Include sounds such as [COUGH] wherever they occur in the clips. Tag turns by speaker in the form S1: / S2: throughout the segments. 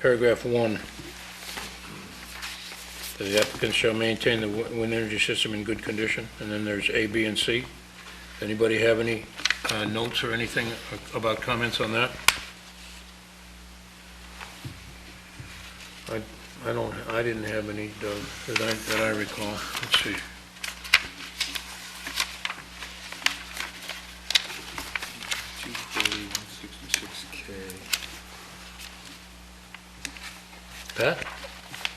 S1: paragraph one. That The applicant shall maintain the wi- wind energy system in good condition, and then there's A, B, and C. Anybody have any uh, notes or anything about comments on that? I, I don't, I didn't have any, Doug, that I, that I recall. Let's see.
S2: Two forty, one sixty-six K.
S1: Pat?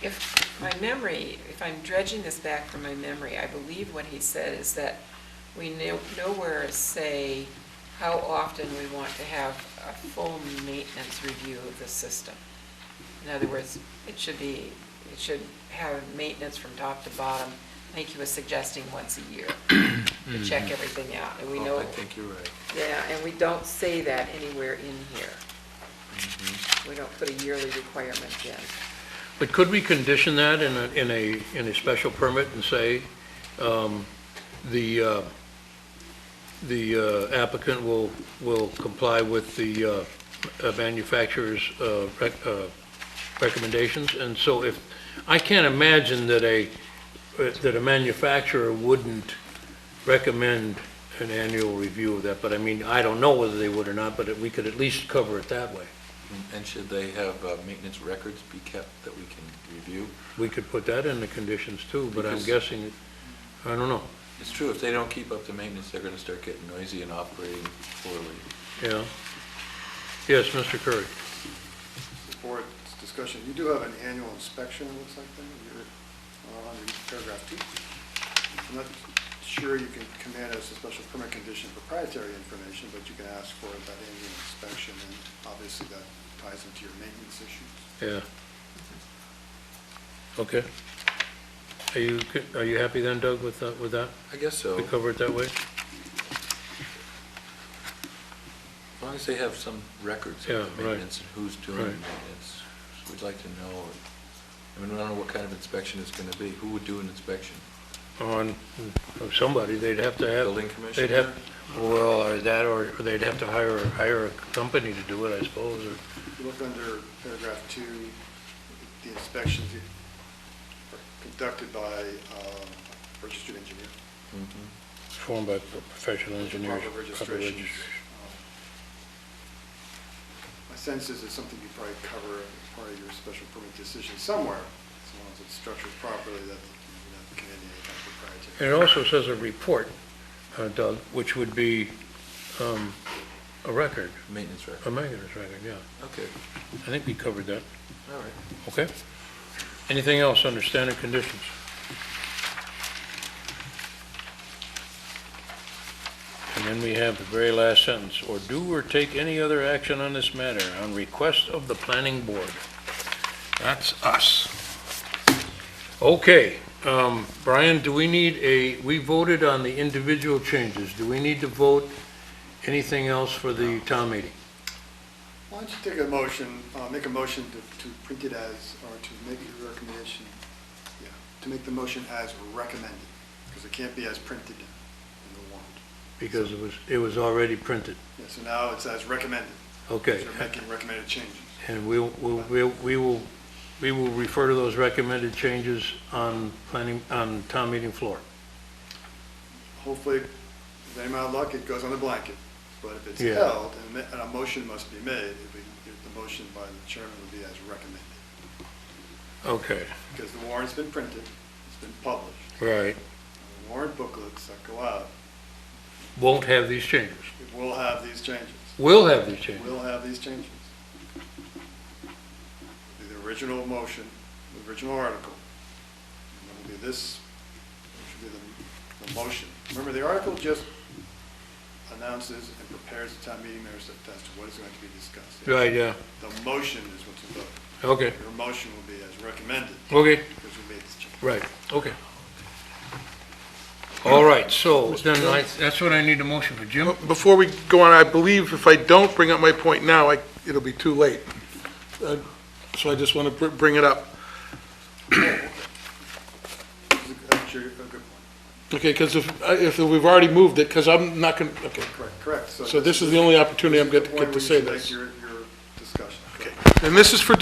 S3: If my memory, if I'm dredging this back from my memory, I believe what he said is that we no- nowhere say how often we want to have a full maintenance review of the system. In other words, it should be, it should have maintenance from top to bottom. I think he was suggesting once a
S2: [CLEARS THROAT]
S3: year to check everything out, and we
S2: Mm-hmm. Oh,
S3: know,
S2: I think you're right.
S3: yeah, and we don't say that anywhere in here.
S2: Mm-hmm.
S3: We don't put a yearly requirement in.
S1: But could we condition that in a, in a, in a special permit and say, um, the, uh, the uh, applicant will, will comply with the uh, uh, manufacturer's uh, rec- uh, recommendations? And so if, I can't imagine that a, that a manufacturer wouldn't recommend an annual review of that, but I mean, I don't know whether they would or not, but we could at least cover it that way.
S2: And should they have uh, maintenance records be kept that we can review?
S1: We could put that in the conditions too, but I'm
S2: Because-
S1: guessing, I don't know,
S2: It's true, if they don't keep up the maintenance, they're gonna start getting noisy and operating poorly.
S1: yeah. Yes, Mr. Curry.
S4: board's discussion, you do have an annual inspection, it looks like, then, you're uh, under paragraph two. I'm not sure you can command as a special permit condition proprietary information, but you can ask for that annual inspection, and obviously that ties into your maintenance issues.
S1: Yeah. Okay. Are you, co- are you happy then, Doug, with that, with that?
S2: I guess so,
S1: We
S2: as
S1: cover it that way?
S2: long as they have some records
S1: Yeah,
S2: of
S1: right.
S2: the maintenance and who's doing the
S1: Right.
S2: maintenance. So We'd like to know, I mean, we don't know what kind of inspection it's gonna be, who would do an inspection?
S1: On, of somebody, they'd have to have.
S2: Building
S1: They'd have,
S2: commissioner?
S1: well, or that, or or they'd have to hire, hire a company to do it, I suppose, or.
S4: You look under paragraph two, the inspections are conducted by um, registered engineer.
S2: Mhm.
S1: Formed by professional engineers.
S4: Proper registrations. My sense is it's something you probably cover as part of your special permit decision somewhere, as long as it's structured properly, that you're not committing any kind of
S1: And
S4: proprietary.
S1: it also says a report, uh, Doug, which would be um, a record,
S2: Maintenance
S1: a
S2: record,
S1: maintenance record, yeah.
S2: okay,
S1: I think we covered that,
S2: all right.
S1: okay? Anything else under standard conditions? And then we have the very last sentence, or do or take any other action on this matter on request of the planning board. That's us. Okay, um, Brian, do we need a, we voted on the individual changes. Do we need to vote anything else for the town meeting?
S4: Why don't you take a motion, uh, make a motion to, to print it as, or to make your recommendation, yeah, to make the motion as recommended, because it can't be as printed in the warrant.
S1: Because it was, it was already printed.
S4: Yeah, so now it's as recommended,
S1: Okay.
S4: because you're making recommended changes.
S1: And we will, we'll- we'll- we will, we will refer to those recommended changes on planning, on town meeting floor.
S4: hopefully, with any amount of luck, it goes on the blanket. But if it's
S1: Yeah.
S4: held, and ma- and a motion must be made, if we- if the motion by the chairman would be as recommended.
S1: Okay,
S4: Because the warrant's been printed, it's been published,
S1: right.
S4: and the warrant booklets that go out,
S1: Won't have these changes.
S4: it will have these changes.
S1: Will have these changes.
S4: Will have these changes. It'll be The original motion, the original article, and it'll be this, which will be the, the motion. Remember, the article just announces and prepares the town meeting members as to what is going to be discussed.
S1: Right, yeah,
S4: The motion is what's involved.
S1: okay,
S4: Your motion will be as recommended,
S1: okay,
S4: because we made this change.
S1: right, okay. All right, so then I, that's what I need a motion for. Jim?
S5: Before we go on, I believe if I don't bring up my point now, I- it'll be too late. Uh, So I just want to bring it up.
S4: This is a- That's your, a good point.
S5: Okay, because if, I- if we've already moved it, because I'm not going, to okay.
S4: Correct, correct.
S5: So this is the only opportunity I'm going to
S4: the point
S5: get to
S4: where you
S5: say
S4: should
S5: this.
S4: make Your, your discussion.
S5: And this is for